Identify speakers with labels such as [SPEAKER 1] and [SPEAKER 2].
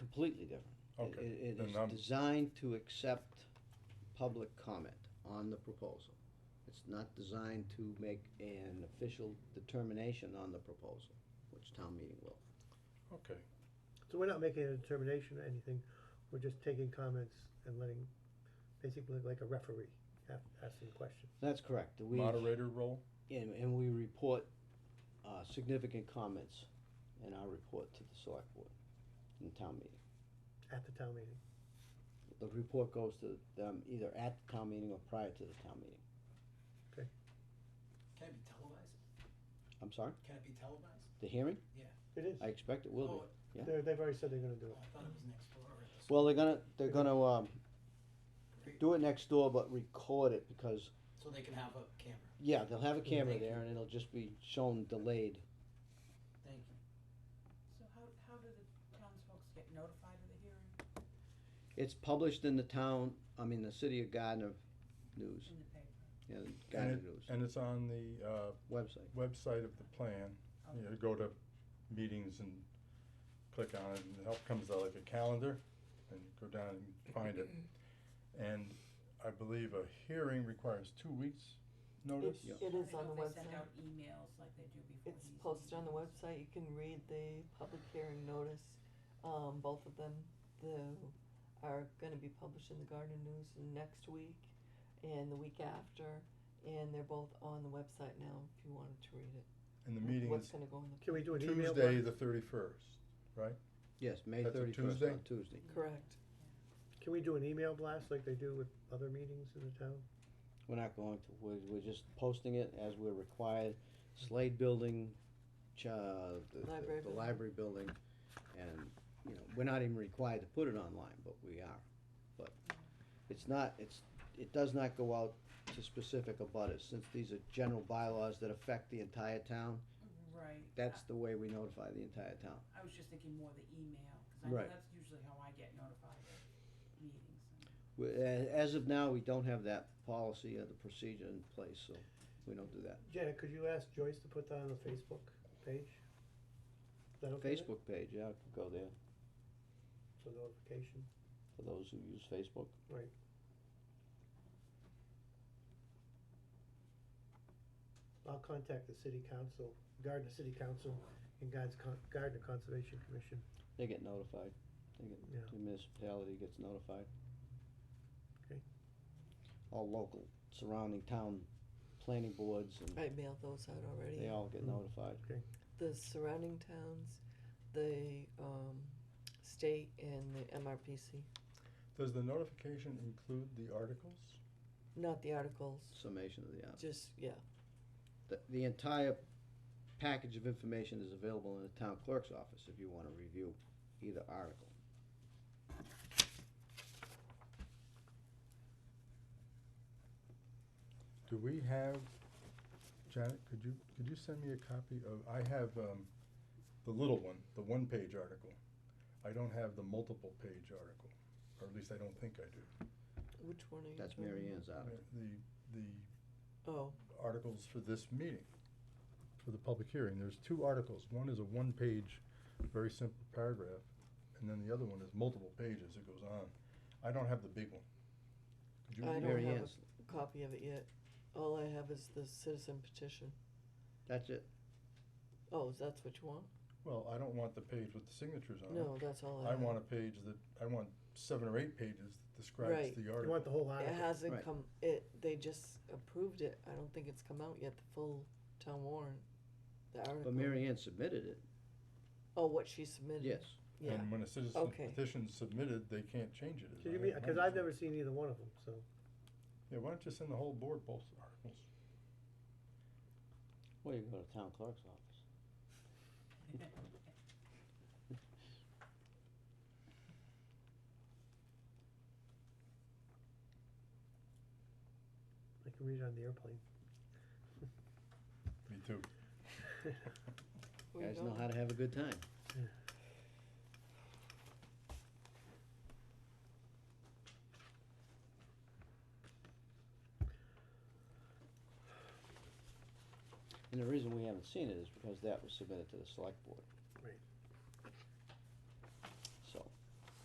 [SPEAKER 1] completely different. It-
[SPEAKER 2] Okay,
[SPEAKER 1] It, it
[SPEAKER 2] then
[SPEAKER 1] is
[SPEAKER 2] I'm-
[SPEAKER 1] designed to accept public comment on the proposal. It's not designed to make an official determination on the proposal, which town meeting will.
[SPEAKER 2] Okay,
[SPEAKER 3] So we're not making a determination or anything, we're just taking comments and letting, basically like a referee, a- asking questions.
[SPEAKER 1] That's correct. We,
[SPEAKER 2] moderator role?
[SPEAKER 1] and, and we report, uh, significant comments in our report to the select board in town meeting.
[SPEAKER 3] at the town meeting.
[SPEAKER 1] The report goes to them either at the town meeting or prior to the town meeting.
[SPEAKER 4] Can it be televised?
[SPEAKER 1] I'm sorry,
[SPEAKER 4] Can it be televised?
[SPEAKER 1] the hearing?
[SPEAKER 3] It is.
[SPEAKER 1] I expect it will be.
[SPEAKER 4] Oh,
[SPEAKER 1] yeah.
[SPEAKER 3] They're, they've already said they're gonna do
[SPEAKER 4] oh,
[SPEAKER 3] it.
[SPEAKER 4] I thought it was next door. or this-
[SPEAKER 1] Well, they're gonna, they're gonna, um, do it next door, but record it because,
[SPEAKER 4] So they can have a camera.
[SPEAKER 1] yeah, they'll have a camera
[SPEAKER 4] Thank
[SPEAKER 1] there and it'll just be shown delayed.
[SPEAKER 4] Thank you.
[SPEAKER 5] So how, how do the townsfolk get notified of the hearing
[SPEAKER 1] It's published in the town, I mean, the city of Gardner News,
[SPEAKER 5] in the paper?
[SPEAKER 1] yeah, Gardner News
[SPEAKER 2] And it's on the uh,
[SPEAKER 1] website.
[SPEAKER 2] website of the plan. You know, go to meetings and click on it, and help comes out like a calendar, and go down and find it. And I believe a hearing requires two weeks notice.
[SPEAKER 6] It's, it is on the
[SPEAKER 5] I don't know if they send
[SPEAKER 6] website.
[SPEAKER 5] out emails like they do before
[SPEAKER 6] It's
[SPEAKER 5] these
[SPEAKER 6] posted on the
[SPEAKER 5] meetings.
[SPEAKER 6] website. You can read the public hearing notice. Um, both of them, the, are gonna be published in the Garden News next week and the week after. And they're both on the website now, if you wanted to read it.
[SPEAKER 2] And the meeting
[SPEAKER 6] What's
[SPEAKER 2] is
[SPEAKER 6] gonna go in
[SPEAKER 3] Can we do an email?
[SPEAKER 2] Tuesday, the thirty-first.
[SPEAKER 1] Yes, May
[SPEAKER 2] That's a
[SPEAKER 1] thirty-first
[SPEAKER 2] Tuesday?
[SPEAKER 1] on Tuesday.
[SPEAKER 6] the, correct.
[SPEAKER 3] blast? Can we do an email blast like they do with other meetings in the town?
[SPEAKER 1] We're not going to, we're, we're just posting it as we're required. Slade Building, cha, the, the-
[SPEAKER 6] Library
[SPEAKER 1] the
[SPEAKER 6] building.
[SPEAKER 1] library building, and, you know, we're not even required to put it online, but we are. But it's not, it's, it does not go out to specific abutters, since these are general bylaws that affect the entire town.
[SPEAKER 5] Right.
[SPEAKER 1] That's the way we notify the entire town.
[SPEAKER 5] I- I was just thinking more the email, cause I know
[SPEAKER 1] Right.
[SPEAKER 5] that's usually how I get notified of meetings.
[SPEAKER 1] We- a- As of now, we don't have that policy or the procedure in place, so we don't do that.
[SPEAKER 3] Janet, could you ask Joyce to put that on the Facebook page? Is that okay? Nick?
[SPEAKER 1] Facebook page, yeah, I could go there,
[SPEAKER 3] For notification.
[SPEAKER 1] for those who use Facebook.
[SPEAKER 3] I'll contact the city council, Gardner City Council and Gardner Con- Gardner Conservation Commission.
[SPEAKER 1] They get notified. They get,
[SPEAKER 3] Yeah.
[SPEAKER 1] the municipality gets notified.
[SPEAKER 3] Okay.
[SPEAKER 1] All local surrounding town planning boards and
[SPEAKER 6] I mailed those out already.
[SPEAKER 1] they all get
[SPEAKER 3] Mm.
[SPEAKER 1] notified.
[SPEAKER 6] The surrounding towns, the, um, state and the MRPC,
[SPEAKER 2] Does the notification include the articles?
[SPEAKER 6] not the articles,
[SPEAKER 1] Summation of the, uh,
[SPEAKER 6] just, yeah.
[SPEAKER 1] the, the entire package of information is available in the town clerk's office if you wanna review either article.
[SPEAKER 2] Do we have, Janet, could you, could you send me a copy of, I have, um, the little one, the one-page article. I don't have the multiple-page article, or at least I don't think I do.
[SPEAKER 6] Which one are you?
[SPEAKER 1] That's
[SPEAKER 6] talking
[SPEAKER 1] Mary
[SPEAKER 6] about?
[SPEAKER 1] Ann's article.
[SPEAKER 2] The, the
[SPEAKER 6] Oh,
[SPEAKER 2] articles for this meeting, for the public hearing, there's two articles. One is a one-page, very simple paragraph, and then the other one is multiple pages, it goes on. I don't have the big one. Could you
[SPEAKER 6] I don't
[SPEAKER 2] email-
[SPEAKER 1] Mary
[SPEAKER 6] have a-
[SPEAKER 1] Ann's,
[SPEAKER 6] copy of it yet. All I have is the citizen petition.
[SPEAKER 1] that's it.
[SPEAKER 6] Oh, that's what you want?
[SPEAKER 2] Well, I don't want the page with the signatures on it.
[SPEAKER 6] No, that's all Uh-huh.
[SPEAKER 2] I
[SPEAKER 6] I have.
[SPEAKER 2] want a page that, I want seven or eight pages that describes
[SPEAKER 6] Right.
[SPEAKER 2] the
[SPEAKER 3] You want
[SPEAKER 2] article.
[SPEAKER 3] the whole
[SPEAKER 6] It
[SPEAKER 3] article?
[SPEAKER 1] Right.
[SPEAKER 6] hasn't come, it, they just approved it. I don't think it's come out yet, the full town warrant, the article.
[SPEAKER 1] But Mary Ann submitted it,
[SPEAKER 6] Oh, what she submitted?
[SPEAKER 1] yes.
[SPEAKER 6] Yeah,
[SPEAKER 2] And when a citizen
[SPEAKER 6] Okay.
[SPEAKER 2] petition's submitted, they can't change it. is
[SPEAKER 3] Can you
[SPEAKER 2] my
[SPEAKER 3] be, cause
[SPEAKER 2] understanding.
[SPEAKER 3] I've never seen either one of them, so.
[SPEAKER 2] Yeah, why don't you send the whole board both articles?
[SPEAKER 1] Well, you can go to town clerk's office.
[SPEAKER 3] I can read it on the airplane.
[SPEAKER 2] Me too.
[SPEAKER 6] where you
[SPEAKER 1] Guys know
[SPEAKER 6] going?
[SPEAKER 1] how to have a good time. And the reason we haven't seen it is because that was submitted to the select board.